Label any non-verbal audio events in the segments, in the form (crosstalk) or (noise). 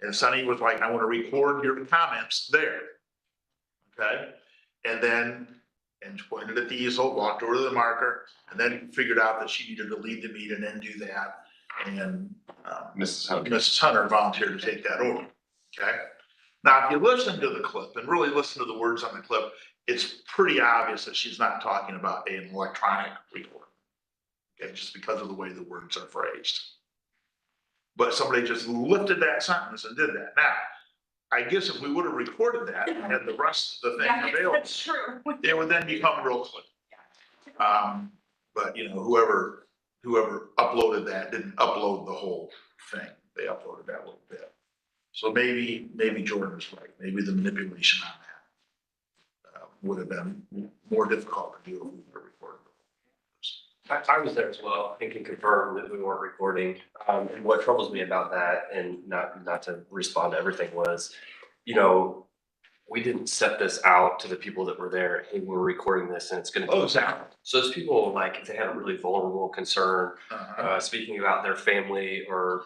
And Sunny was like, I want to record your comments there. Okay, and then, and pointed at the easel, walked over to the marker, and then figured out that she needed to lead the meeting and do that. And, um, Mrs. Hunter. Mrs. Hunter volunteered to take that over, okay? Now, if you listen to the clip and really listen to the words on the clip, it's pretty obvious that she's not talking about an electronic recorder. Okay, just because of the way the words are phrased. But somebody just lifted that sentence and did that. Now, I guess if we would have recorded that and had the rest of the Yeah, thing available, (laughs) That's true. it would then become real clear. Uh, Um, but you know, whoever, whoever uploaded that didn't upload the whole thing. They uploaded that little bit. So maybe, maybe Jordan was right. Maybe the manipulation on that uh, would have been more difficult to do if we were recording. I, I was there as well. I can confirm that we weren't recording. Um, and what troubles me about that and not, not to respond to everything was, you know, we didn't set this out to the people that were there. Hey, we're recording this and it's gonna be. Oh, exactly. So those people, like, if they had a really vulnerable concern, Uh-huh. uh, speaking about their family or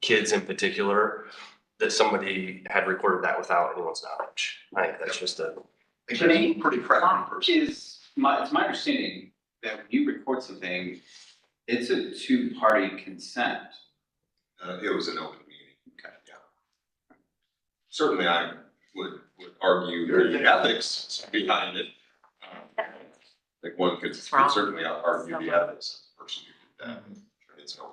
kids in particular, that somebody had recorded that without anyone's knowledge. I think that's just a, It's a Pretty crafty person. Is my, it's my understanding that when you record something, it's a two-party consent. Uh, it was an open meeting. Okay. Yeah. Certainly, I would, would argue the ethics behind it. Um, Like one could It's wrong. could certainly argue the ethics of the person who did that. It's open.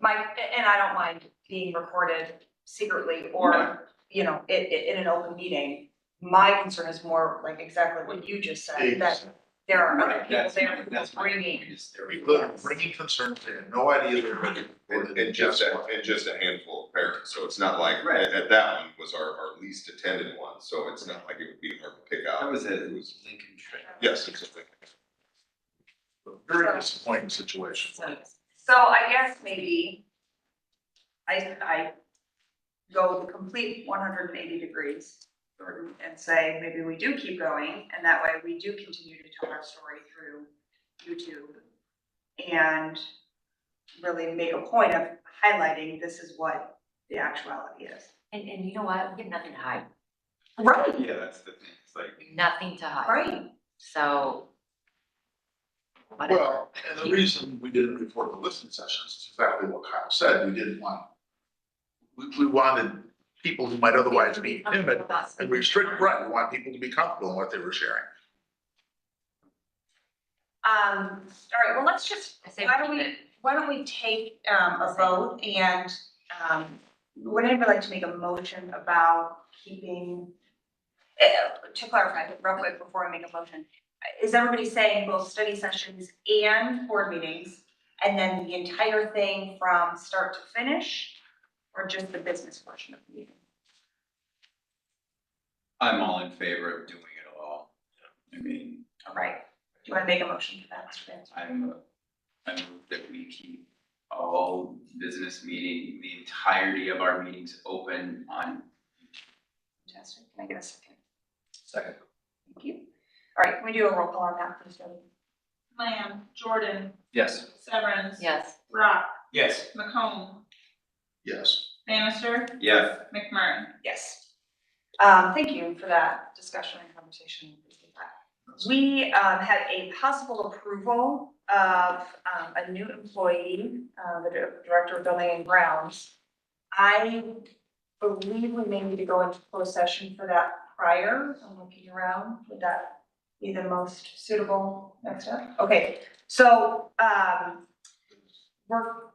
My, and I don't mind being recorded secretly or, you know, in, in an open meeting. My concern is more like exactly what you just said, that there are other Right, people that's my- there who are that's my point, bringing. is there- Very good. Bringing concerns, they had no idea they were being And, recorded. and just, a- and just a handful of parents, so it's not like, Right. at, at that one was our, our least attended one, so it's not like it would be hard to pick out. That was at who was- Lincoln Trail. Yes, exactly. Very disappointing situation. So so I guess maybe I, I go the complete one hundred and eighty degrees Jordan, and say, maybe we do keep going, and that way we do continue to tell our story through YouTube. And really make a point of highlighting this is what the actuality is. And, and you know what, we have nothing to hide, Right. Yeah, that's the thing, it's like, nothing to hide, Right, um, so. Whatever, Well, and the reason we didn't report the listening sessions is exactly what Kyle said, we didn't want. We, we wanted people who might otherwise be timid and restrict, right, we want people to be comfortable in what they were sharing. um, all right, well, let's just, I say, why don't keep we, it. why don't we take um a vote and um would anybody like to make a motion about keeping eh, to clarify real quick before I make a motion, is everybody saying both study sessions and board meetings? And then the entire thing from start to finish, or just the business portion of the meeting? I'm all in favor of doing it all. I mean, All right, do you wanna make a motion for that, Mr. Vance? I'm, I move that we keep all business meeting, the entirety of our meetings open on. Fantastic, can I get a second? Second. Thank you. All right, can we do a roll call on that, please, Jody? Lamb, Jordan, Yes. Severance. yes, Rock, Yes. McComb, Yes. Bannister, Yes. McMurray. Yes. Um, thank you for that discussion and conversation. Appreciate that. We, um, had a possible approval of, um, a new employee, uh, the dir- Director of Building and Grounds. I believe we may need to go into closed session for that prior, I'm looking around, would that be the most suitable next step? Okay, so, um, we're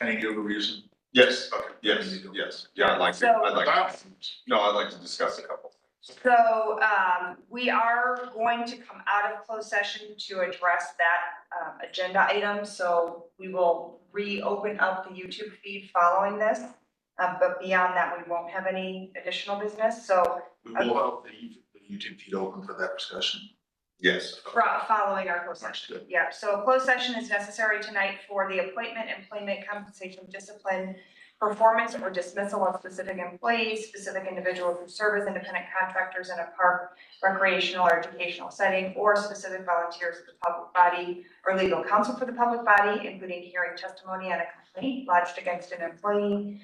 Any other reason? Yes, okay, yes, yes, yeah, I'd like to, So- I'd like, to- no, I'd like to discuss a couple. So um, we are going to come out of closed session to address that um, agenda item. So we will reopen up the YouTube feed following this. Uh, But beyond that, we won't have any additional business. So We will have the YouTube feed open for that discussion. Yes. fro- following our closed session. Understood. Yeah, so a closed session is necessary tonight for the appointment, employment, compensation, discipline, performance or dismissal of specific employees, specific individuals who serve as independent contractors in a park, recreational or educational setting, or specific volunteers of the public body or legal counsel for the public body, including hearing testimony on a complaint lodged against an employee,